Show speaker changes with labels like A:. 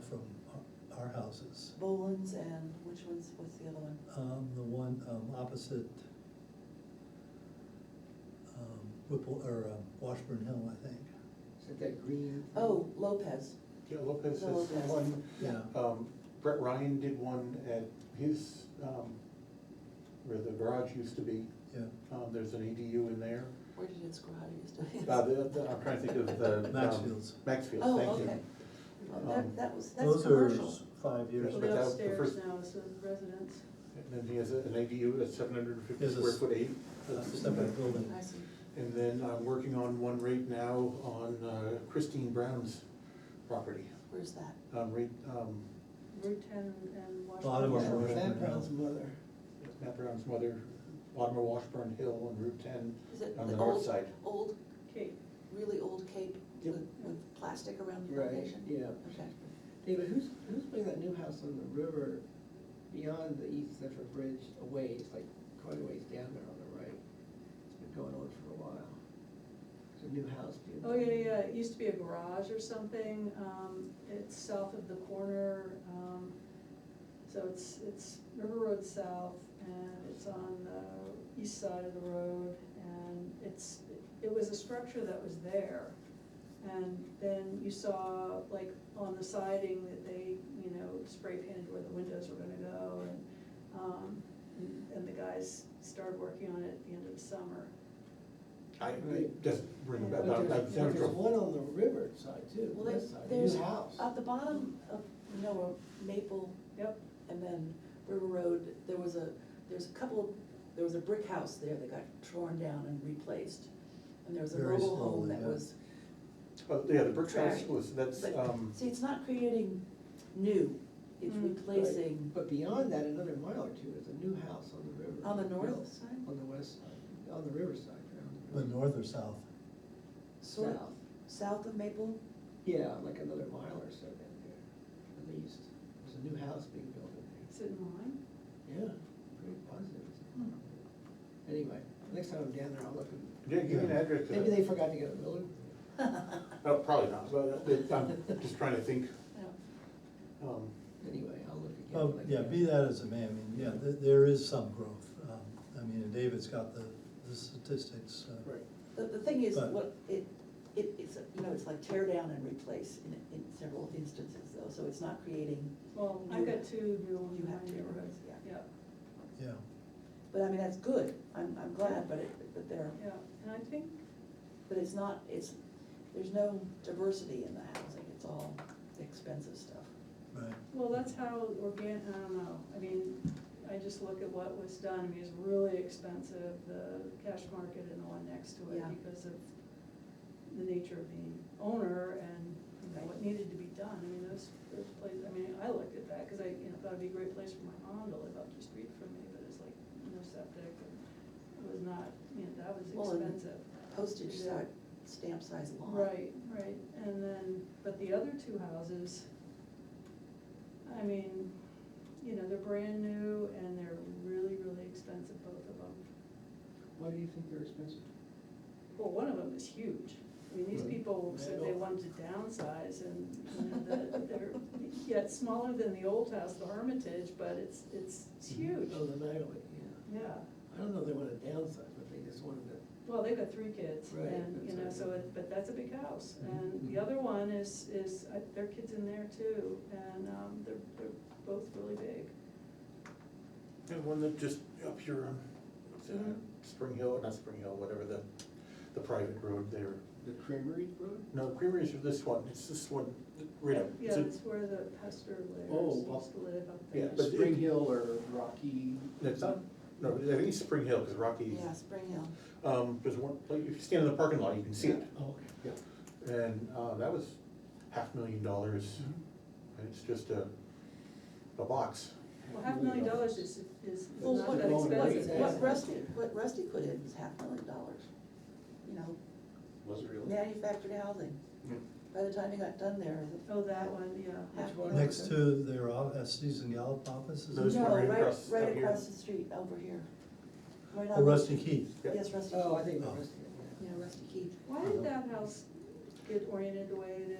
A: from our- our houses.
B: Boland's and which one's, what's the other one?
A: Um, the one, um, opposite, um, Whipple, or, um, Washburn Hill, I think.
C: Is it that green?
B: Oh, Lopez.
D: Yeah, Lopez has
B: Lopez.
D: one,
A: Yeah,
D: um, Brett Ryan did one at his, um, where the garage used to be,
A: yeah.
D: um, there's an ADU in there.
B: Where did its garage used to be?
D: Uh, the- the- I'm trying to think of the. um,
A: Maxfield's.
D: Maxfield,
B: Oh,
D: thank you.
B: okay. Well,
D: Um,
B: That, that was, that's
A: Those are
B: commercial.
A: Five years.
D: But
E: But
D: that- the
E: upstairs
D: first-
E: now is the residence.
D: And then he has a- an ADU at seven hundred and fifty
A: Yes, it's-
D: square foot eight.
A: Uh, separate building.
B: I see.
D: And then I'm working on one right now on uh, Christine Brown's property,
B: Where's that?
D: um, right, um,
E: Route ten and Washington.
A: Bottom of
C: Yeah,
A: Washburn
C: Sam
A: Hill.
C: Brown's mother.
D: Matt Brown's mother, bottom of Washburn Hill on Route ten,
B: Is it
D: on the
B: old-
D: north side.
B: Old,
E: Kate,
B: really old cape
D: Yep.
B: with, with plastic around the
C: Right,
B: foundation?
C: yeah.
B: Okay.
C: David, who's, who's putting that new house on the river beyond the East Central Bridge a ways, like quite a ways down there on the right? It's been going on for a while. There's a new house being.
E: oh, yeah, yeah, it used to be a garage or something, um, it's south of the corner, um, so it's, it's River Road South, and it's on the east side of the road, and it's, it was a structure that was there. And then you saw, like, on the siding that they, you know, spray painted where the windows were gonna go, and, um, and- and the guys started working on it at the end of the summer.
D: I, it doesn't ring a
C: But
D: bell, that,
C: there's,
D: that
C: but there's one
D: central.
C: on the river side too,
B: Well,
C: west
B: there's,
C: side,
B: there's,
C: new house.
B: at the bottom of, you know, of Maple
E: Yep,
B: and then River Road, there was a, there's a couple, there was a brick house there that got torn down and replaced. And there was a
A: Very
B: mobile home
A: slowly,
B: that
A: yeah.
B: was
D: Oh, yeah, the brick house
B: Trash.
D: was, that's,
B: But,
D: um,
B: see, it's not creating new, it's
E: Mm.
B: replacing
C: But beyond that, another mile or two, is a new house on the river.
B: on the north side,
C: On the west side, on the river side. around
A: The
C: river.
A: north or south?
B: sort of,
C: South.
B: south of Maple.
C: Yeah, like another mile or so down there, at least. There's a new house being built in there.
E: is it in line?
C: Yeah, pretty positive. Anyway, next time I'm down there, I'll look and,
D: yeah, give me an address to
C: maybe they
D: that.
C: forgot to get a builder.
D: Oh, probably not, but it- I'm just trying to think,
B: Yeah.
D: um,
C: Anyway, I'll look again.
A: Oh,
C: like
A: yeah,
C: that.
A: be that as it may, I mean, yeah, there, there is some growth. Um, I mean, and David's got the, the statistics. uh,
D: right.
B: The, the thing is,
A: But-
B: what, it, it, it's, you know, it's like tear down and replace in, in several instances though, so it's not creating,
E: Well, I've got two new ones
B: You
E: in my
B: have two
E: neighborhood,
B: roads, yeah.
E: yeah,
A: Yeah,
B: but I mean, that's good, I'm, I'm glad, but it, but there,
E: yeah, and I think,
B: but it's not, it's, there's no diversity in the housing, it's all expensive stuff.
A: right.
E: well, that's how organ, I don't know, I mean, I just look at what was done, I mean, it's really expensive, the cash market and the one next to it
B: Yeah.
E: because of the nature of the owner and, you know, what needed to be done, I mean, those, those places, I mean, I looked at that, cause I, you know, thought it'd be a great place for my mom to live up the street from me, but it's like, no septic, and it was not, you know, that was
B: Well, and
E: expensive.
B: Postage
E: Yeah.
B: si- stamp size lot.
E: Right, right, and then, but the other two houses, I mean, you know, they're brand new and they're really, really expensive, both of them.
C: Why do you think they're expensive?
E: Well, one of them is huge. I mean, these
C: Right.
E: people said they wanted to downsize and, you know, that they're, yeah, it's smaller than the old house, the Hermitage, but it's, it's, it's huge.
C: Oh, the Magley,
E: Yeah,
C: yeah. I don't know if they want to downsize, but they just wanted to,
E: well, they've got three kids
C: Right,
E: and, you know,
C: that's
E: so
C: right.
E: it, but that's a big house.
D: Mm-hmm.
E: And the
C: Mhm.
E: other one is, is, uh, their kids in there too, and, um, they're, they're both really big.
D: And one that just up here on, what's that,
E: Mhm.
D: Spring Hill, not Spring Hill, whatever the, the private road there.
F: The Creamery Road?
D: No, Creamery is this one, it's this one, right up.
E: Yeah,
D: It's a-
E: that's where the Pester
D: Oh,
E: lives,
D: well,
E: used to live up
D: yeah,
E: there.
D: but-
F: Spring Hill or Rocky?
D: That's not, no, I think it's Spring Hill, because Rocky,
B: Yeah, Spring Hill.
D: um, there's one, like, if you stand in the parking lot, you can see it.
C: oh, okay.
D: Yeah. And, uh, that was half million dollars,
C: Mm-hmm.
D: and it's just a, a box.
E: Well, half a million dollars is, is
B: Well,
E: not
B: what,
E: that
F: what-
E: expensive.
C: Yeah.
B: what Rusty, what Rusty put in was half a million dollars, you know,
F: Was it really?
B: manufactured housing. By the time he got done there, the-
E: Oh, that one, yeah.
B: half.
C: Which one?
A: Next to their, off- uh, Susan Gallup offices.
D: Those
B: No,
D: were right
B: right,
D: across- up
B: right
D: here.
B: across the street, over here. Right
A: Oh,
B: on-
A: Rusty Keith.
D: Yeah.
B: Yes, Rusty.
C: Oh, I
B: Keith.
C: think the
A: Oh.
C: rest of it, yeah.
B: Yeah, Rusty Keith.
E: Why did that house get oriented the way it is?